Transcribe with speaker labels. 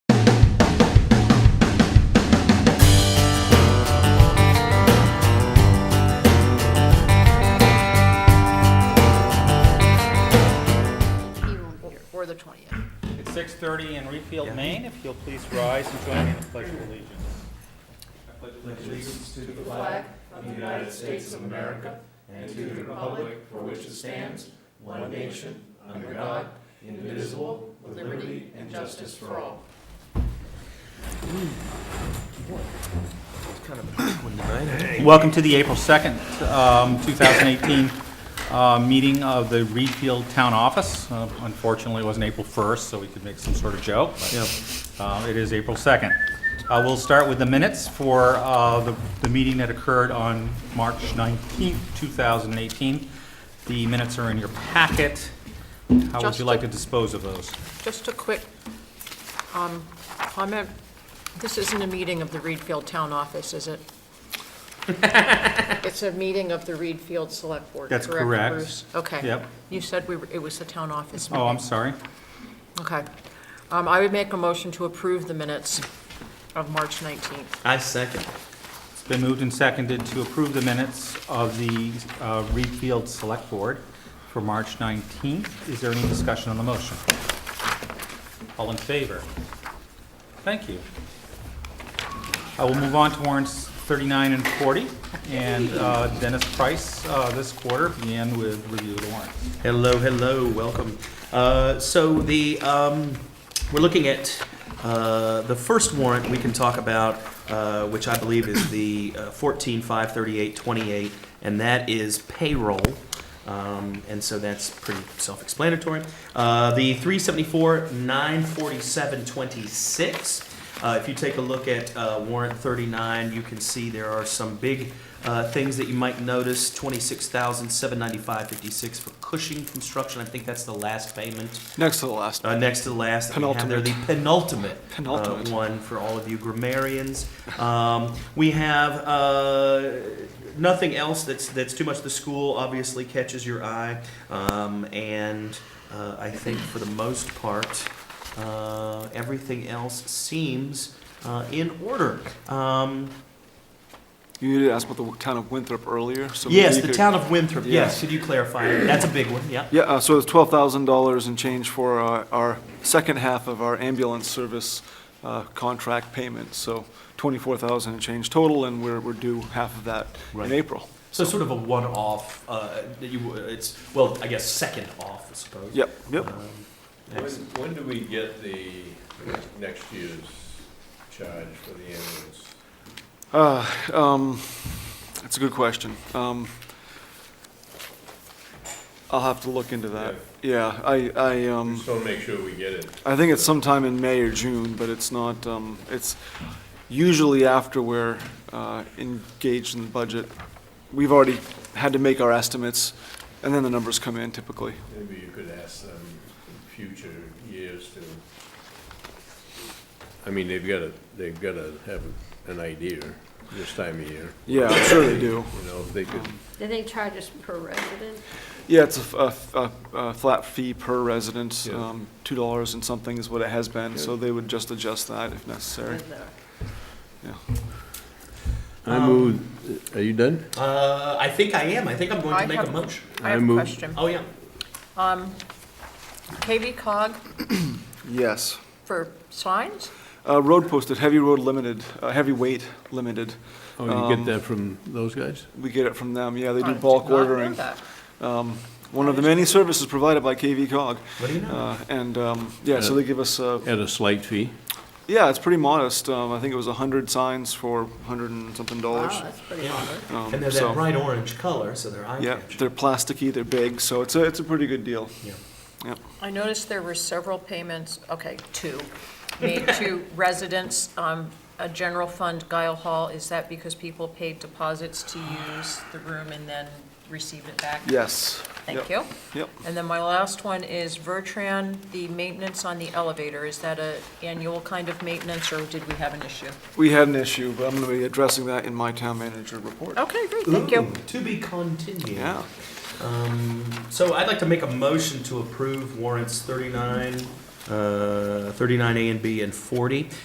Speaker 1: 6:30 in Reedfield,
Speaker 2: Yeah.
Speaker 1: Maine. If you'll please rise and join me in the Pledge of Allegiance.
Speaker 3: allegiance to the flag of the United States of America and to the republic for which it stands, one nation, under God, indivisible, with liberty and justice for all.
Speaker 1: Welcome to the April 2nd, um, 2018 uh, meeting of the Reedfield Town Office. Uh, Unfortunately, it wasn't April 1st, so we could make some sort of joke. but, uh, It is April 2nd. Uh, We'll start with the minutes for uh, the the meeting that occurred on March 19th, 2018. The minutes are in your packet. How would you
Speaker 4: Justin?
Speaker 1: like to dispose of those?
Speaker 4: Just a quick um, comment. This isn't a meeting of the Reedfield Town Office, is it? It's a meeting of the Reedfield Select Board,
Speaker 1: That's
Speaker 4: correct,
Speaker 1: correct.
Speaker 4: Bruce? Okay.
Speaker 1: Yep.
Speaker 4: You said we, were- it was the town office meeting.
Speaker 1: Oh, I'm sorry.
Speaker 4: Okay. Um, I would make a motion to approve the minutes of March 19th.
Speaker 2: I second.
Speaker 1: It's been moved and seconded to approve the minutes of the uh, Reedfield Select Board for March 19th. Is there any discussion on the motion? All in favor? Thank you. I will move on to warrants 39 and 40, and uh, Dennis Price uh, this quarter began with review of the warrants.
Speaker 2: Hello, hello, welcome. Uh, So the, um, we're looking at uh, the first warrant we can talk about, uh, which I believe is the uh, 14, 5, 38, 28, and that is payroll. Um, And so that's pretty self-explanatory. Uh, The 374, 947, 26. Uh, If you take a look at uh, warrant 39, you can see there are some big uh, things that you might notice, twenty-six thousand, seven ninety-five, fifty-six for Cushing Construction. I think that's the last payment,
Speaker 5: Next to the last.
Speaker 2: uh, next to the last. that we have there, The penultimate. uh,
Speaker 5: Penultimate.
Speaker 2: One for all of you grammarians. Um, We have, uh, nothing else that's, that's too much. The school obviously catches your eye. Um, And uh, I think for the most part, uh, everything else seems uh, in order. Um,
Speaker 5: You did ask about the town of Winthrop earlier, so. maybe
Speaker 2: Yes,
Speaker 5: you
Speaker 2: the
Speaker 5: could-
Speaker 2: town of Winthrop,
Speaker 5: Yeah.
Speaker 2: yes, could you clarify? That's a big one, yeah.
Speaker 5: Yeah, uh, so it's twelve thousand dollars and change for our, our second half of our ambulance service uh, contract payment. So twenty-four thousand and change total, and we're, we're due half of that
Speaker 2: Right.
Speaker 5: in April.
Speaker 2: So sort of a one-off, uh, that you, it's, well, I guess second off, I suppose.
Speaker 5: Yep, yep.
Speaker 2: Um,
Speaker 3: When,
Speaker 2: excellent.
Speaker 3: when do we get the next year's charge for the ambulance?
Speaker 5: Uh, um, That's a good question. Um, I'll have to look into that. Yeah, I, I, um.
Speaker 3: Just want to make sure we get it.
Speaker 5: I think it's sometime in May or June, but it's not, um, it's usually after we're, uh, engaged in the budget. We've already had to make our estimates, and then the numbers come in typically.
Speaker 3: Maybe you could ask them in future years to, I mean, they've got to, they've got to have an idea this time of year.
Speaker 5: Yeah, I'm sure they do.
Speaker 3: You know, if they could,
Speaker 6: Do they charge us per resident?
Speaker 5: Yeah, it's a f- a, f- a- a flat fee per resident,
Speaker 3: Yeah.
Speaker 5: um, two dollars and something is what it has been, so
Speaker 3: Good.
Speaker 5: they would just adjust that if necessary.
Speaker 6: With the-
Speaker 3: I move, are you done?
Speaker 2: Uh, I think I am, I think I'm going
Speaker 4: I
Speaker 2: to make a
Speaker 4: have-
Speaker 2: motion.
Speaker 4: I
Speaker 3: I
Speaker 4: have a
Speaker 3: move-
Speaker 4: question.
Speaker 2: Oh, yeah.
Speaker 4: Um, KV cog
Speaker 5: Yes.
Speaker 4: for signs?
Speaker 5: Uh, road posted, heavy road limited, uh, heavy weight limited.
Speaker 3: Oh, you
Speaker 5: Um,
Speaker 3: get that from those guys?
Speaker 5: We get it from them, yeah, they
Speaker 4: I
Speaker 5: do
Speaker 4: did
Speaker 5: bulk
Speaker 4: not know
Speaker 5: ordering.
Speaker 4: that.
Speaker 5: um, one of the many services provided by KV Cog.
Speaker 2: What do you know?
Speaker 5: Uh, And, um, yeah, so they give us, uh,
Speaker 3: At a slight fee?
Speaker 5: yeah, it's pretty modest. Um, I think it was 100 signs for 100 and something
Speaker 6: Wow,
Speaker 5: dollars.
Speaker 6: that's pretty
Speaker 2: Yeah.
Speaker 6: modern.
Speaker 5: Um,
Speaker 2: And they're
Speaker 5: so-
Speaker 2: that bright orange color, so they're eye
Speaker 5: Yeah,
Speaker 2: catching.
Speaker 5: they're plasticky, they're big, so it's a, it's a pretty good deal.
Speaker 2: Yeah.
Speaker 4: I noticed there were several payments, okay, two, made to residents, um, a general fund, Guile Hall. Is that because people paid deposits to use the room and then received it back?
Speaker 5: Yes.
Speaker 4: Thank
Speaker 5: Yep.
Speaker 4: you.
Speaker 5: Yep.
Speaker 4: And then my last one is Vertran, the maintenance on the elevator. Is that a annual kind of maintenance, or did we have an issue?
Speaker 5: We had an issue, but I'm going to be addressing that in my town manager report.
Speaker 4: Okay, great, thank
Speaker 2: Ooh,
Speaker 4: you.
Speaker 2: To be continued.
Speaker 5: Yeah.
Speaker 2: Um, So I'd like to make a motion to approve warrants 39, uh, 39A and B, and 40.